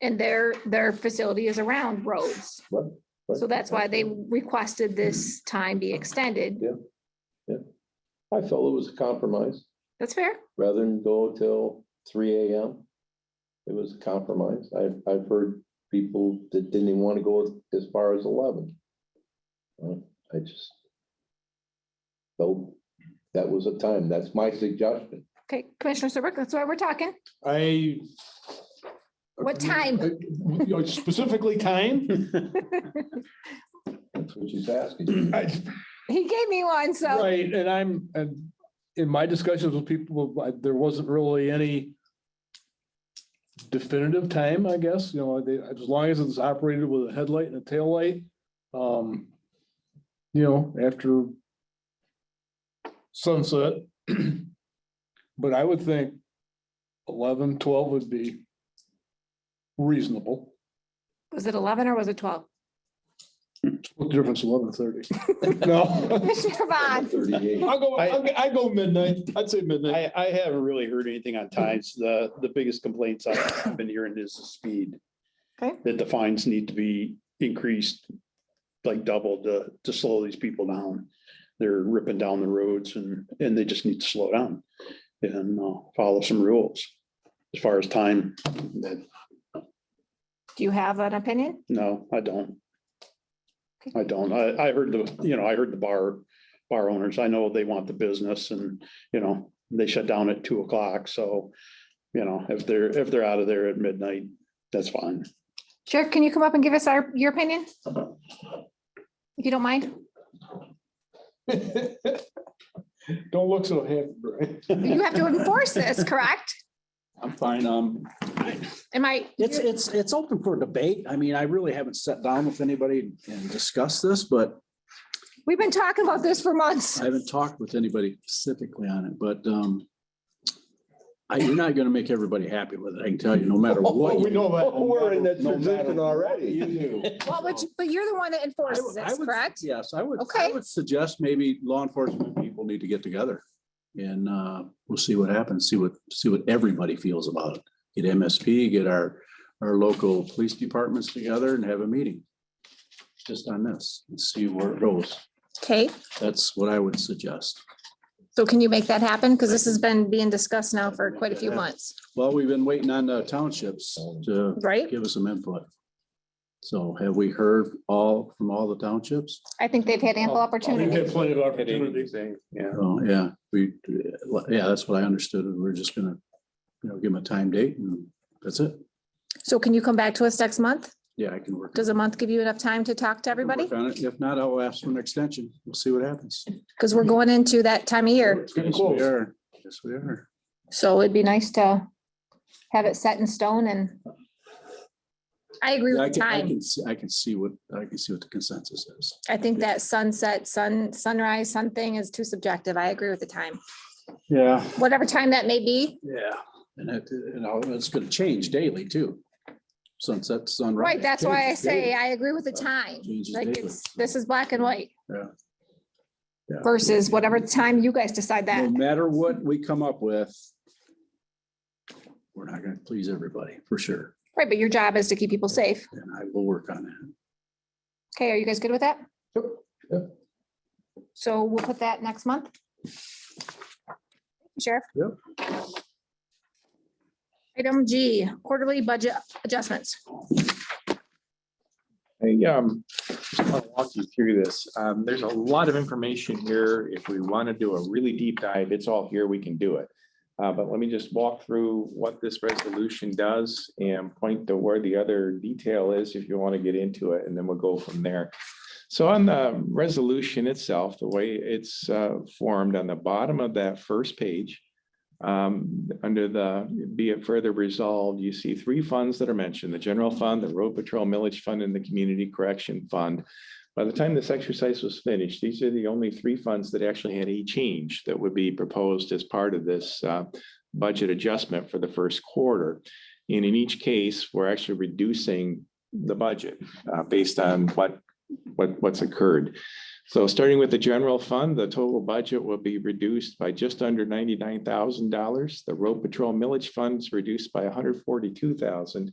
and their, their facility is around roads. Right, right. So that's why they requested this time be extended. I felt it was a compromise, That's fair. rather than go till three AM. It was a compromise. I've, I've heard people that didn't even want to go as far as eleven. Uh, I just felt that was a time. That's my suggestion. Okay, Commissioner Serbrook, that's why we're talking. I. uh, What time? You know, Specifically time? That's what she's asking. I- He gave me one, so Right, and I'm, and in my discussions with people, I- there wasn't really any definitive time, I guess, you know, they, as long as it's operated with a headlight and a taillight. um, You know, after sunset. But I would think 11, 12 would be reasonable. was it eleven or was it twelve? What difference eleven thirty? No. Commissioner Vaughn, Thirty-eight. I'll go, I'll go- I go midnight. I'd say midnight. I, I haven't really heard anything on times. The, the biggest complaints I've been hearing is the speed. Okay. That the fines need to be increased, like doubled to, to slow these people down. They're ripping down the roads and, and they just need to slow down and uh, follow some rules. As far as time, that- do you have an opinion? no, I don't. I don't. I, I heard the, you know, I heard the bar, bar owners. I know they want the business and, you know, they shut down at two o'clock. So, you know, if they're, if they're out of there at midnight, that's fine. Sheriff, can you come up and give us our, your opinion? If you don't mind, Don't look so happy, Brian. you have to enforce this, correct? I'm fine. Um, Am I? it's, it's, it's open for debate. I mean, I really haven't sat down with anybody and discussed this, but We've been talking about this for months. I haven't talked with anybody specifically on it, but, um, I, you're not gonna make everybody happy with it. I can tell you, no matter what. you- know that. We're in that No matter position what already. You do. Well, but, you- but you're the one that I enforces would- I this, would- correct? Yes, I would, I Okay. would suggest maybe law enforcement people need to get together. And, uh, we'll see what happens, see what, see what everybody feels about it. Get MSP, get our, our local police departments together and have a meeting. Just on this and see where it goes. Okay, That's what I would suggest. so can you make that happen? Because this has been being discussed now for quite a few Yeah. months, Well, we've been waiting on the townships to right? give us some input. So have we heard all, from all the townships? I think they've had ample We've opportunity. had plenty of opportunities. Yeah. Oh, yeah, we, yeah, that's what I understood. We're just gonna, you know, give them a time date and that's it. So can you come back to us next month? Yeah, I can work. Does a month give you enough time to talk to I can work everybody? on it. If not, I'll ask for an extension. We'll see what happens. Because we're going into that time of year. Yes, we close. are. Yes, we are. So it'd be nice to have it set in stone and I agree Yeah, I with can, I time. can, see- I can see what, I can see what the consensus is. I think that sunset, sun, sunrise, sun thing is too subjective. I agree with the time. Yeah. Whatever time that may be, Yeah. And it, and I'll- it's gonna change daily too. Sunset, sunrise. right? That's why I changes daily. say I agree with the time. Changes Like daily. it's, this is black and white. Yeah. Yeah. Versus whatever time you guys decide that. No matter what we come up with, we're not gonna please everybody, for sure, Right, but your job is to keep people safe. and I will work on that. Okay, are you guys good with that? Yep, yep. So we'll put that next month. Sheriff? Yep. Item G, quarterly budget adjustments. Hey, um, I'll walk you through this. Um, there's a lot of information here. If we want to do a really deep dive, it's all here. We can do it. Uh, but let me just walk through what this resolution does and point to where the other detail is if you want to get into it, and then we'll go from there. So on the resolution itself, the way it's uh, formed on the bottom of that first page, um, under the, be it further resolved, you see three funds that are mentioned, the general fund, the road patrol millage fund, and the community correction fund. By the time this exercise was finished, these are the only three funds that actually had a change that would be proposed as part of this uh, budget adjustment for the first quarter. And in each case, we're actually reducing the budget uh, based on what, what, what's occurred. So starting with the general fund, the total budget will be reduced by just under ninety-nine thousand dollars. The road patrol millage funds reduced by $142,000,